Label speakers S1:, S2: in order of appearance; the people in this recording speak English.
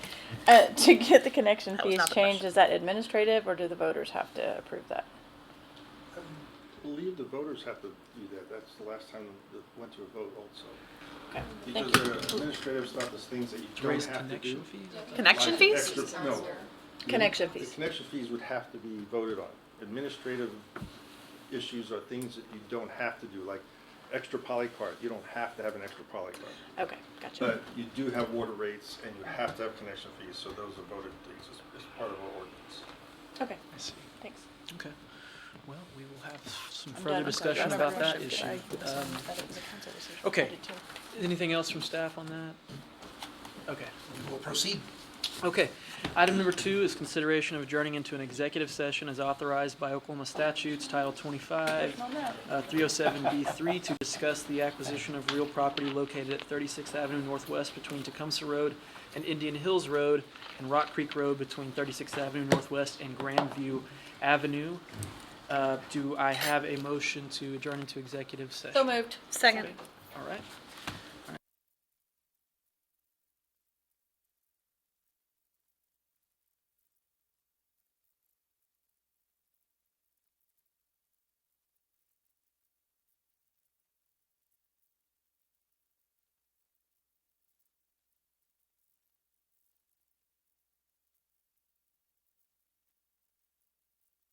S1: Uh, to get the connection
S2: That was
S1: fees
S2: not the
S1: changed,
S2: question.
S1: is that administrative or do the voters have to approve that?
S3: I believe the voters have to do that. That's the last time it went to a vote also.
S1: Okay,
S3: Because
S1: thank you.
S3: there are administrative stuff, there's things that you
S4: To
S3: don't
S4: raise
S3: have to do.
S4: connection fees?
S2: Connection
S3: Like
S2: fees?
S3: extra- No.
S1: Connection
S3: The
S1: fees.
S3: connection fees would have to be voted on. Administrative issues are things that you don't have to do, like extra poly card. You don't have to have an extra poly card.
S1: Okay, gotcha.
S3: But you do have water rates and you have to have connection fees, so those are voted things as, as part of our ordinance.
S1: Okay,
S4: I see.
S1: thanks.
S4: Okay. Well, we will have some
S1: I'm
S4: further
S1: done.
S4: discussion
S1: I'm
S4: about
S1: done.
S4: that issue.
S1: I
S4: Um,
S1: assumed that it was a council decision.
S4: okay.
S1: I did too.
S4: Anything else from staff on that? Okay.
S5: We'll proceed.
S4: Okay. Item number two is consideration of adjourning into an executive session as authorized by Oklahoma statutes, Title 25, uh, 307B3, to discuss the acquisition of real property located at 36th Avenue Northwest between Tecumseh Road and Indian Hills Road, and Rock Creek Road between 36th Avenue Northwest and Grandview Avenue. Uh, Do I have a motion to adjourn into executive session?
S1: So moved.
S2: Second.
S4: All right.